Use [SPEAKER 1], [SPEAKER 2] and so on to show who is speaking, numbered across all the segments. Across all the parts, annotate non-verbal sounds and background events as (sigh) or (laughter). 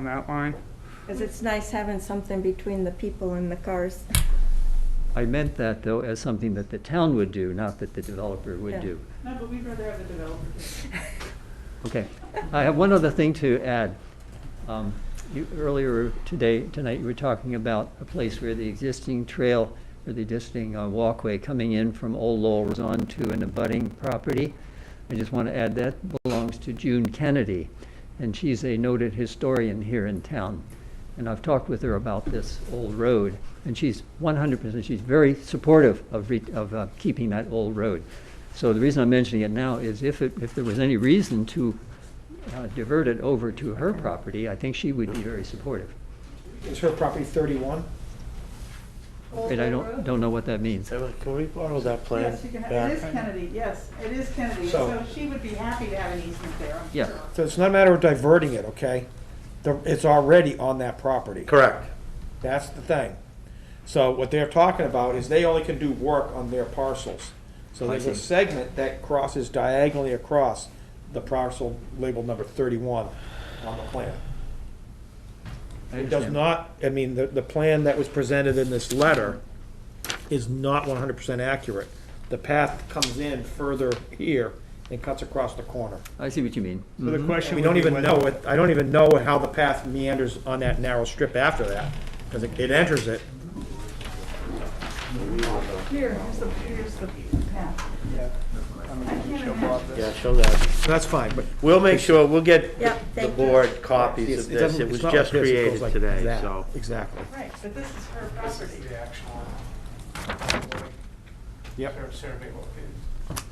[SPEAKER 1] on that line.
[SPEAKER 2] Because it's nice having something between the people and the cars.
[SPEAKER 3] I meant that, though, as something that the town would do, not that the developer would
[SPEAKER 2] Yeah.
[SPEAKER 3] do.
[SPEAKER 4] No, but we'd rather have the developers.
[SPEAKER 3] Okay. (laughs) I have one other thing to add. Um, You, earlier today, tonight, you were talking about a place where the existing trail, or the existing uh, walkway coming in from Old Lowell was onto an abutting property. I just want to add that belongs to June Kennedy, and she's a noted historian here in town. And I've talked with her about this old road, and she's one hundred percent, she's very supportive of re, of uh, keeping that old road. So the reason I'm mentioning it now is if it, if there was any reason to uh, divert it over to her property, I think she would be very supportive.
[SPEAKER 5] Is her property 31?
[SPEAKER 3] And I don't, don't know what that means.
[SPEAKER 6] So, Can we borrow that plan?
[SPEAKER 4] Yes, you can, ha-
[SPEAKER 6] back?
[SPEAKER 4] it is Kennedy, yes, it is Kennedy,
[SPEAKER 5] So-
[SPEAKER 4] so she would be happy to have an easement there, I'm
[SPEAKER 3] Yeah.
[SPEAKER 4] sure.
[SPEAKER 5] So it's not a matter of diverting it, okay? The- It's already on that property.
[SPEAKER 6] Correct.
[SPEAKER 5] That's the thing. So what they're talking about is they only can do work on their parcels. So
[SPEAKER 3] I
[SPEAKER 5] there's a
[SPEAKER 3] see.
[SPEAKER 5] segment that crosses diagonally across the parcel labeled number 31 on the plan.
[SPEAKER 3] I
[SPEAKER 5] It does
[SPEAKER 3] understand.
[SPEAKER 5] not, I mean, the, the plan that was presented in this letter is not 100% accurate. The path comes in further here and cuts across the corner.
[SPEAKER 3] I see what you mean.
[SPEAKER 1] So the
[SPEAKER 3] Mhm.
[SPEAKER 1] question
[SPEAKER 5] We
[SPEAKER 1] would
[SPEAKER 5] don't
[SPEAKER 1] be
[SPEAKER 5] even
[SPEAKER 1] whether-
[SPEAKER 5] know, it. I don't even know how the path meanders on that narrow strip after that, because it enters it.
[SPEAKER 4] Here, here's the, here's the path. I can't imagine.
[SPEAKER 6] Yeah, show that.
[SPEAKER 5] That's fine, but
[SPEAKER 6] We'll make sure, we'll get
[SPEAKER 2] Yeah,
[SPEAKER 6] the
[SPEAKER 2] thank you.
[SPEAKER 6] board copies
[SPEAKER 5] it's-
[SPEAKER 6] of
[SPEAKER 5] it doesn't-
[SPEAKER 6] this. It
[SPEAKER 5] it's
[SPEAKER 6] was
[SPEAKER 5] not like
[SPEAKER 6] just
[SPEAKER 5] this, it goes
[SPEAKER 6] created
[SPEAKER 5] like
[SPEAKER 6] today,
[SPEAKER 5] that.
[SPEAKER 6] so.
[SPEAKER 5] Exactly.
[SPEAKER 4] Right, but this is her property.
[SPEAKER 1] The actual,
[SPEAKER 5] Yep.
[SPEAKER 1] like, survey located.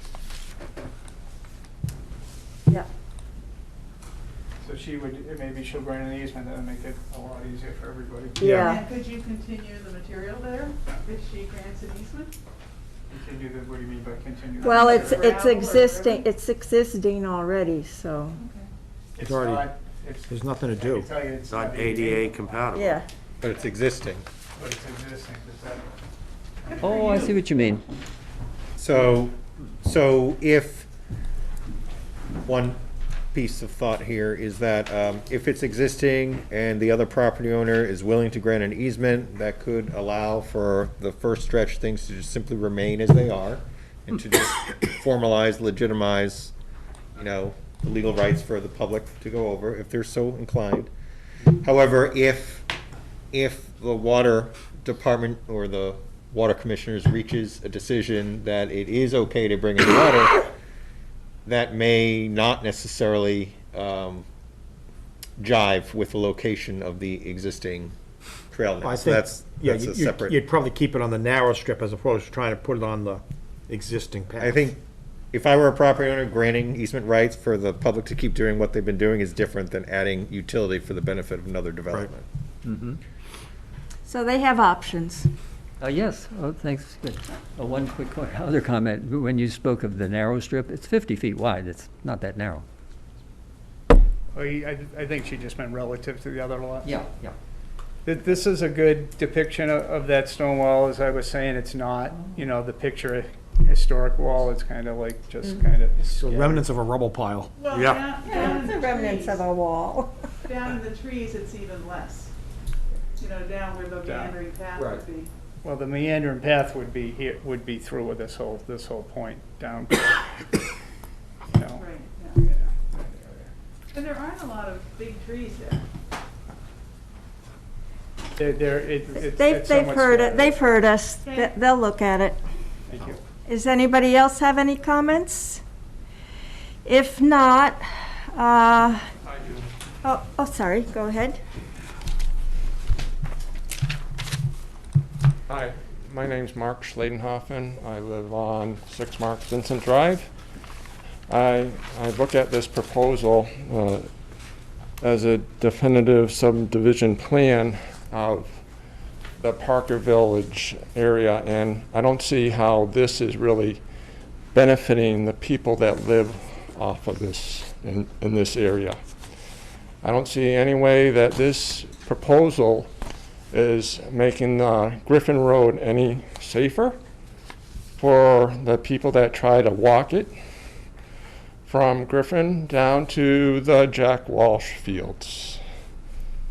[SPEAKER 2] (laughs) Yeah.
[SPEAKER 1] So she would, maybe she'll grant an easement, that would make it a lot easier for everybody.
[SPEAKER 2] Yeah.
[SPEAKER 4] And could you continue the material there if she grants an easement?
[SPEAKER 1] Continue the, what do you mean by continue? the
[SPEAKER 2] Well, it's,
[SPEAKER 1] survey?
[SPEAKER 2] it's existing, it's existing already, so,
[SPEAKER 1] It's
[SPEAKER 5] already-
[SPEAKER 1] not, it's,
[SPEAKER 5] There's nothing to
[SPEAKER 1] I can
[SPEAKER 5] do.
[SPEAKER 1] tell you it's
[SPEAKER 6] It's
[SPEAKER 1] not
[SPEAKER 6] not ADA compatible.
[SPEAKER 2] yeah.
[SPEAKER 7] But it's existing.
[SPEAKER 1] But it's existing, does that,
[SPEAKER 3] Oh, I see what you mean.
[SPEAKER 7] So, so if, one piece of thought here is that um, if it's existing and the other property owner is willing to grant an easement, that could allow for the first stretch things to just simply remain as they are and to just formalize, legitimize, you know, the legal rights for the public to go over if they're so inclined. However, if, if the water department or the water commissioners reaches a decision that it is okay to bring in water, that may not necessarily um, jive with the location of the existing trail
[SPEAKER 5] I
[SPEAKER 7] net. So
[SPEAKER 5] think,
[SPEAKER 7] that's,
[SPEAKER 5] yeah,
[SPEAKER 7] that's a
[SPEAKER 5] you-
[SPEAKER 7] separate.
[SPEAKER 5] you'd probably keep it on the narrow strip as opposed to trying to put it on the existing path.
[SPEAKER 7] I think if I were a property owner, granting easement rights for the public to keep doing what they've been doing is different than adding utility for the benefit of another development.
[SPEAKER 5] Mm-hmm.
[SPEAKER 2] So they have options.
[SPEAKER 3] Uh, yes, oh, thanks, good. Uh, one (laughs) quick co- other comment, when you spoke of the narrow strip, it's fifty feet wide, it's not that narrow.
[SPEAKER 1] oh, you- I, I think she just meant relative to the other lot.
[SPEAKER 3] Yeah, yeah.
[SPEAKER 1] Th- This is a good depiction of, of that stone wall, as I was saying, it's not, you know, the picture historic wall, it's kind of like, just kind of.
[SPEAKER 5] So remnants of a rubble pile.
[SPEAKER 4] Well,
[SPEAKER 6] Yeah.
[SPEAKER 4] down- down
[SPEAKER 2] Yeah,
[SPEAKER 4] in
[SPEAKER 2] it's
[SPEAKER 4] the
[SPEAKER 2] the remnants
[SPEAKER 4] trees-
[SPEAKER 2] of a wall.
[SPEAKER 4] Down in the trees, it's even less. You know, down where the
[SPEAKER 1] Down.
[SPEAKER 4] meandering path
[SPEAKER 5] Right.
[SPEAKER 4] would be.
[SPEAKER 1] Well, the meandering path would be here, would be through with this whole, this whole point down. (coughs) You know,
[SPEAKER 4] Right, yeah.
[SPEAKER 1] yeah.
[SPEAKER 4] And there aren't a lot of big trees there.
[SPEAKER 1] They're, they're, it- it's.
[SPEAKER 2] They've,
[SPEAKER 1] it's
[SPEAKER 2] they've
[SPEAKER 1] somewhat
[SPEAKER 2] heard, it.
[SPEAKER 1] scattered.
[SPEAKER 2] they've heard us,
[SPEAKER 4] Okay.
[SPEAKER 2] They- they'll look at it.
[SPEAKER 1] Thank you.
[SPEAKER 2] Does anybody else have any comments? If not, uh, oh, oh, sorry, go ahead.
[SPEAKER 8] Hi, my name's Mark Schladenhoffen. I live on 6 Mark Vincent Drive. I, I look at this proposal uh, as a definitive subdivision plan of the Parker Village area, and I don't see how this is really benefiting the people that live off of this, in, in this area. I don't see any way that this proposal is making uh, Griffin Road any safer for the people that try to walk it from Griffin down to the Jack Walsh Fields.